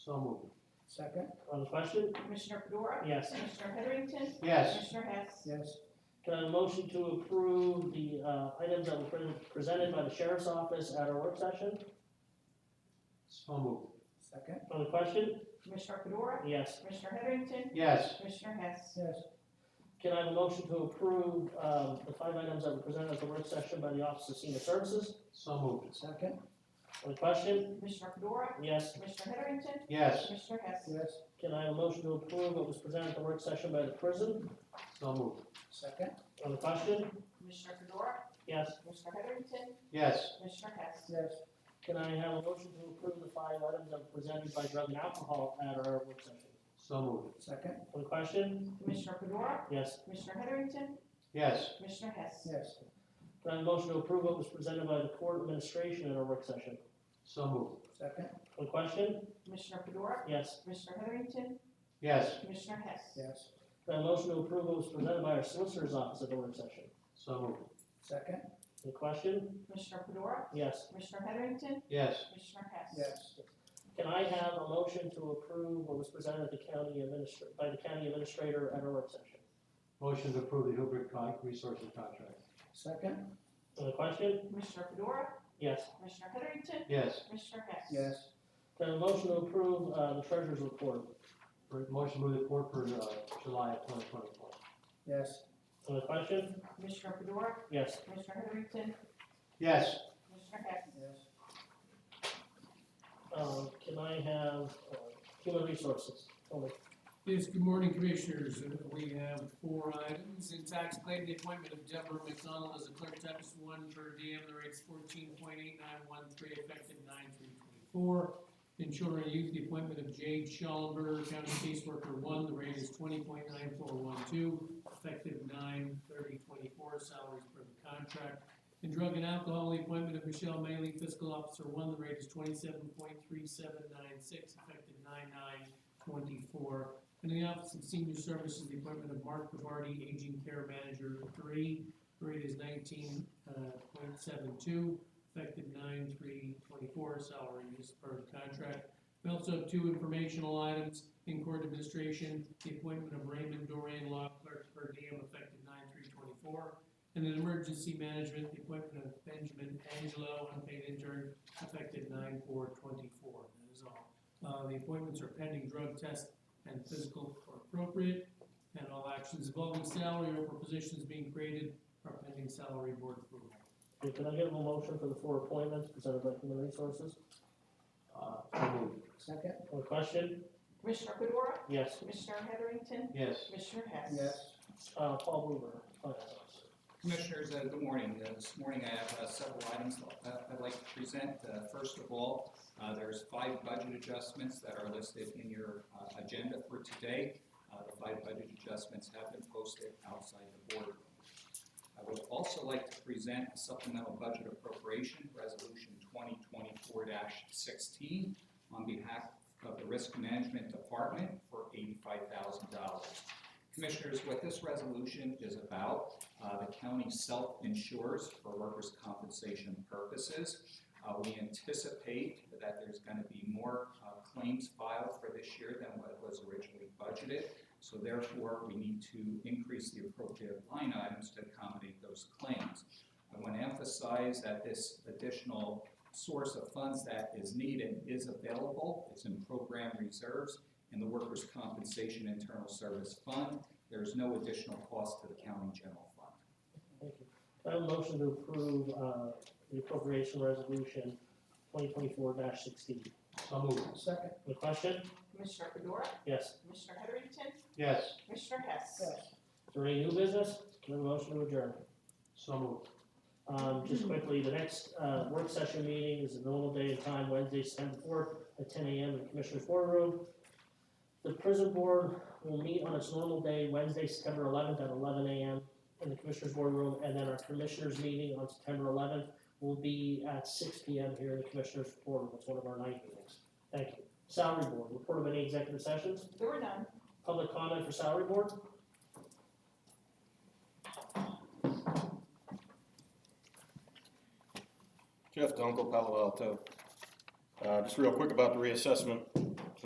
So moved. Second, On the question? Commissioner Fedora? Yes. Commissioner Heatherington? Yes. Commissioner Hess? yes, Can I have a motion to approve the uh, items that were pre- presented by the sheriff's office at our work session? So moved. second, On the question? Commissioner Fedora? Yes. Commissioner Heatherington? Yes. Commissioner Hess? yes, Can I have a motion to approve um, the five items that were presented at the work session by the Office of Senior Services? So moved. second, On the question? Commissioner Fedora? Yes. Commissioner Heatherington? Yes. Commissioner Hess? yes, Can I have a motion to approve what was presented at the work session by the prison? So moved. second, On the question? Commissioner Fedora? Yes. Commissioner Heatherington? Yes. Commissioner Hess? yes, Can I have a motion to approve the five items that were presented by drug and alcohol at our work session? So moved. second, On the question? Commissioner Fedora? Yes. Commissioner Heatherington? Yes. Commissioner Hess? yes, Can I have a motion to approve what was presented by the court administration at our work session? So moved. second, On the question? Commissioner Fedora? Yes. Commissioner Heatherington? Yes. Commissioner Hess? yes, Can I have a motion to approve what was presented by our solicitor's office at the work session? So moved. second, Any question? Commissioner Fedora? Yes. Commissioner Heatherington? Yes. Commissioner Hess? yes, Can I have a motion to approve what was presented at the county administr, by the county administrator at our work session? Motion to approve the Hillbrook Con- Resources contract. second, Any question? Commissioner Fedora? Yes. Commissioner Heatherington? Yes. Commissioner Hess? yes, Can I have a motion to approve, uh, the treasurer's report? For- Motion to move the court for uh, July of 2024. yes, Any question? Commissioner Fedora? Yes. Commissioner Heatherington? Yes. Commissioner Hess? yes, Um, can I have, uh, human resources? Tony? Yes, good morning, Commissioners. Uh, We have four items. In tax claim, the appointment of Deborah McDonald as a clerk typist one per diem, the rate's fourteen point eight nine one three, effective nine three twenty-four. In children and youth, the appointment of Jade Schallenberger, county caseworker one, the rate is twenty point nine four one two, effective nine thirty twenty-four, salaries per the contract. In drug and alcohol, the appointment of Michelle Maley, fiscal officer one, the rate is twenty-seven point three seven nine six, effective nine nine twenty-four. In the Office of Senior Services, the appointment of Mark Bavardi, Aging Care Manager three, grade is nineteen, uh, point seven two, effective nine three twenty-four, salary is per the contract. We also have two informational items in court administration, the appointment of Raymond Dorian Law Clerk per diem, effective nine three twenty-four. And in emergency management, the appointment of Benjamin Angelo, unpaid intern, effective nine four twenty-four, that is all. Uh, the appointments are pending drug test and physical are appropriate, and all actions involving salary or for positions being created are pending salary board approval. Okay, Can I get a motion for the four appointments presented by Human Resources? Uh, So moved. second, One question? Commissioner Fedora? Yes. Commissioner Heatherington? Yes. Commissioner Hess? yes, Uh, Paul Blumer, finance officer. Commissioners, uh, good morning. Uh, This morning I have uh, several items that I'd like to present. Uh, First of all, uh, there's five budget adjustments that are listed in your uh, agenda for today. Uh, The five budget adjustments have been posted outside the board. I would also like to present a supplemental budget appropriation, Resolution 2024-16, on behalf of the Risk Management Department for $85,000. Commissioners, what this resolution is about uh, The county self-insures for workers' compensation purposes. Uh, We anticipate that there's going to be more uh, claims filed for this year than what was originally budgeted. So therefore, we need to increase the appropriate line items to accommodate those claims. I want to emphasize that this additional source of funds that is needed is available. It's in program reserves in the Workers' Compensation Internal Service Fund. There is no additional cost to the county general fund. Thank you. Can I have a motion to approve, uh, the appropriation resolution twenty twenty-four sixteen? So moved. second, Any question? Commissioner Fedora? Yes. Commissioner Heatherington? Yes. Commissioner Hess? yes, Is there any new business? Can I have a motion to adjourn? So moved. Um, just quickly, the next, uh, work session meeting is a normal day and time, Wednesday, September fourth, at ten AM in the Commissioner's Boardroom. The prison board will meet on its normal day, Wednesday, September eleventh, at eleven AM in the Commissioner's Boardroom, and then our Commissioners' meeting on September eleventh will be at six PM here in the Commissioner's Boardroom, it's one of our night meetings. Thank you. Salary Board, report of any executive sessions, There were none. public comment for Salary Board? Jeff Dunkel, Palo Alto. Uh, Just real quick about the reassessment.